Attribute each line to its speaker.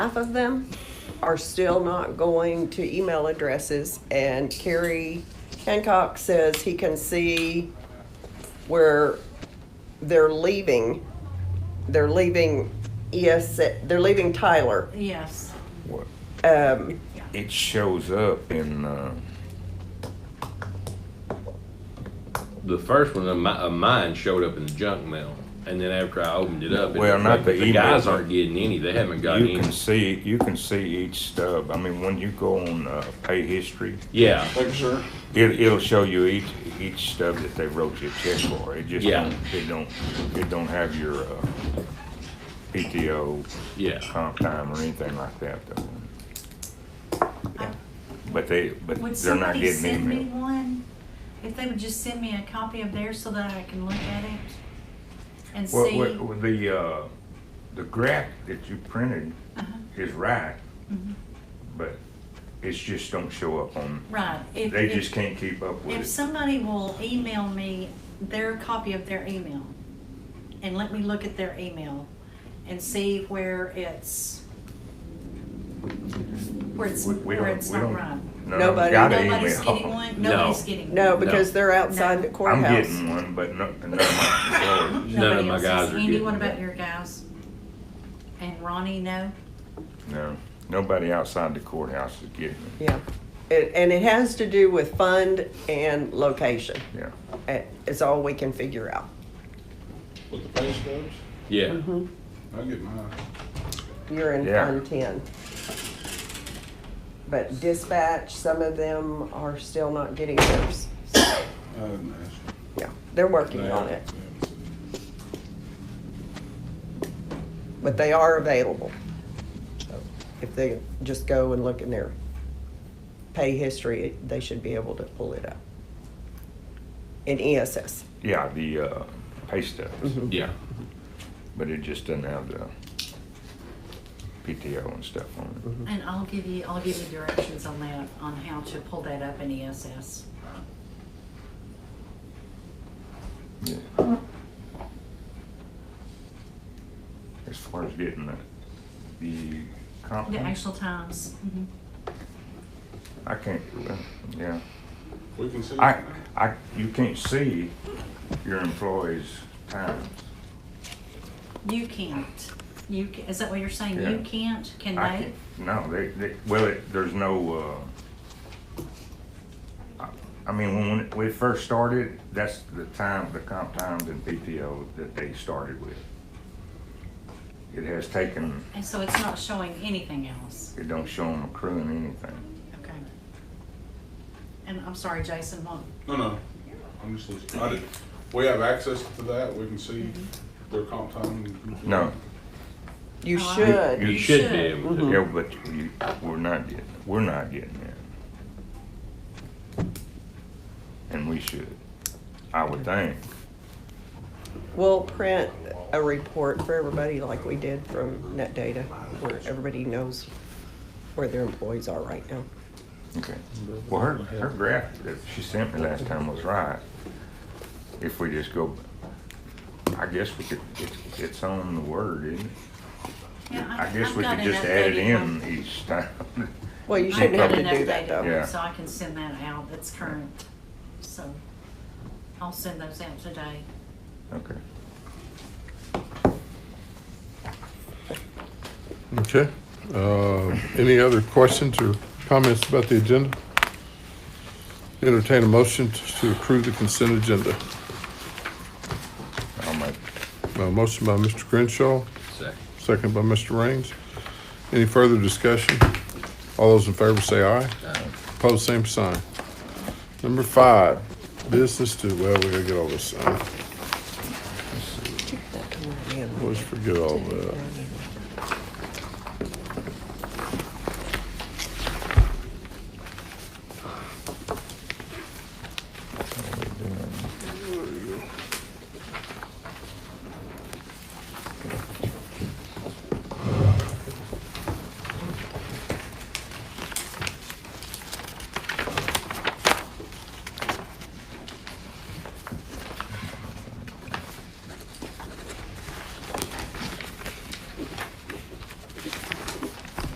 Speaker 1: half of them are still not going to email addresses. And Kerry Hancock says he can see where they're leaving. They're leaving ES, they're leaving Tyler.
Speaker 2: Yes.
Speaker 3: What-
Speaker 1: Um,
Speaker 3: It shows up in, uh,
Speaker 4: The first one of mi- of mine showed up in the junk mail, and then after I opened it up, it
Speaker 3: Well,
Speaker 4: was
Speaker 3: not
Speaker 4: like,
Speaker 3: the
Speaker 4: the guys
Speaker 3: email.
Speaker 4: aren't getting any. They haven't gotten
Speaker 3: you
Speaker 4: any.
Speaker 3: can see, you can see each stub. I mean, when you go on, uh, pay history,
Speaker 4: Yeah,
Speaker 5: Thank you, sir.
Speaker 3: it, it'll show you each, each stub that they wrote you a check for. It just
Speaker 4: Yeah.
Speaker 3: don't, it don't, it don't have your, uh, PTO,
Speaker 4: yeah.
Speaker 3: comp time or anything like that though.
Speaker 2: I-
Speaker 3: But they, but
Speaker 2: Would
Speaker 3: they're not
Speaker 2: somebody
Speaker 3: getting
Speaker 2: send me
Speaker 3: email.
Speaker 2: one? If they would just send me a copy of theirs so that I can look at it and
Speaker 3: Well,
Speaker 2: see.
Speaker 3: well, well, the, uh, the graph that you printed
Speaker 2: Uh-huh.
Speaker 3: is right,
Speaker 2: Mhm.
Speaker 3: but it's just don't show up on,
Speaker 2: Right. If-
Speaker 3: they
Speaker 2: if-
Speaker 3: just can't keep up
Speaker 2: If
Speaker 3: with it.
Speaker 2: somebody will email me their copy of their email and let me look at their email and see where it's, where it's,
Speaker 3: We- we
Speaker 2: where
Speaker 3: don't-
Speaker 2: it's
Speaker 3: we
Speaker 2: not
Speaker 3: don't-
Speaker 2: right.
Speaker 3: no,
Speaker 1: Nobody-
Speaker 3: got an
Speaker 2: Nobody's
Speaker 3: email.
Speaker 2: getting one,
Speaker 4: No.
Speaker 2: nobody's getting one.
Speaker 1: no, because
Speaker 4: No.
Speaker 1: they're outside
Speaker 2: No.
Speaker 1: the
Speaker 3: I'm
Speaker 1: courthouse.
Speaker 3: getting one, but no, none of my employees,
Speaker 4: None of
Speaker 2: Nobody
Speaker 4: my
Speaker 2: else
Speaker 4: guys
Speaker 2: is.
Speaker 4: are
Speaker 2: Andy,
Speaker 4: getting
Speaker 2: what
Speaker 4: it.
Speaker 2: about your guys? And Ronnie, no?
Speaker 3: no, nobody outside the courthouse is getting it,
Speaker 1: Yeah, It- and it has to do with fund and location.
Speaker 3: yeah.
Speaker 1: It- It's all we can figure out.
Speaker 5: With the pay stubs,
Speaker 4: Yeah.
Speaker 5: I get mine.
Speaker 1: You're in
Speaker 3: Yeah.
Speaker 1: Fund Ten. But dispatch, some of them are still not getting theirs.
Speaker 5: I didn't ask.
Speaker 1: Yeah, they're working on it, but they are available. So If they just go and look in their pay history, they should be able to pull it up. In E ESS.
Speaker 3: Yeah, the, uh, pay stubs,
Speaker 4: Yeah.
Speaker 3: but it just doesn't have the PTO and stuff on it.
Speaker 2: And I'll give you, I'll give you directions on that, on how to pull that up in E ESS.
Speaker 3: Yeah. As far as getting the, the comp,
Speaker 2: The actual times. Mhm.
Speaker 3: Mm-hmm. I can't, well, yeah,
Speaker 5: We can see.
Speaker 3: I, I, you can't see your employees' times.
Speaker 2: You can't. You, ca- is that what you're saying? You
Speaker 3: Yeah.
Speaker 2: can't? Can
Speaker 3: I
Speaker 2: they?
Speaker 3: can't- No, they, they, well, it, there's no, uh, I, I mean, when, when we first started, that's the time, the comp times and PTO that they started with. It has taken,
Speaker 2: And so it's not showing anything else?
Speaker 3: it don't show them accruing anything.
Speaker 2: Okay. And I'm sorry, Jason, what?
Speaker 5: No, no, I'm just listening. I did, we have access to that, we can see their comp time.
Speaker 3: No.
Speaker 1: You
Speaker 2: Oh, I-
Speaker 1: should.
Speaker 4: You
Speaker 2: You
Speaker 4: should
Speaker 2: should.
Speaker 4: be able to.
Speaker 3: Yeah, but you, we're not getting, we're not getting that. And we should, I would think.
Speaker 1: We'll print a report for everybody like we did from Net Data, where everybody knows where their employees are right now.
Speaker 3: Okay. Well, her, her graph that she sent me last time was right. If we just go, I guess we could, it's, it's on the word, isn't it?
Speaker 2: Yeah,
Speaker 3: I guess
Speaker 2: I've
Speaker 3: we
Speaker 2: got
Speaker 3: could
Speaker 2: an
Speaker 3: just add it
Speaker 2: updated one.
Speaker 3: in each time.
Speaker 1: Well, you
Speaker 3: She
Speaker 1: shouldn't have
Speaker 3: probably-
Speaker 1: to do that though.
Speaker 3: Yeah.
Speaker 2: So I can send that out, that's current, so I'll send those out today.
Speaker 3: Okay.
Speaker 6: Okay. Uh, Any other questions or comments about the agenda? Entertain a motion to approve the consent agenda.
Speaker 3: I'll make,
Speaker 6: A Uh, motion by Mr. Crenshaw,
Speaker 4: Second.
Speaker 6: second by Mr. Raines. Any further discussion? All those in favor say aye. Opposed, same sign. Number five, business to, well, we gotta get all this
Speaker 1: That
Speaker 6: signed.
Speaker 1: can work in.
Speaker 6: Always forget all that.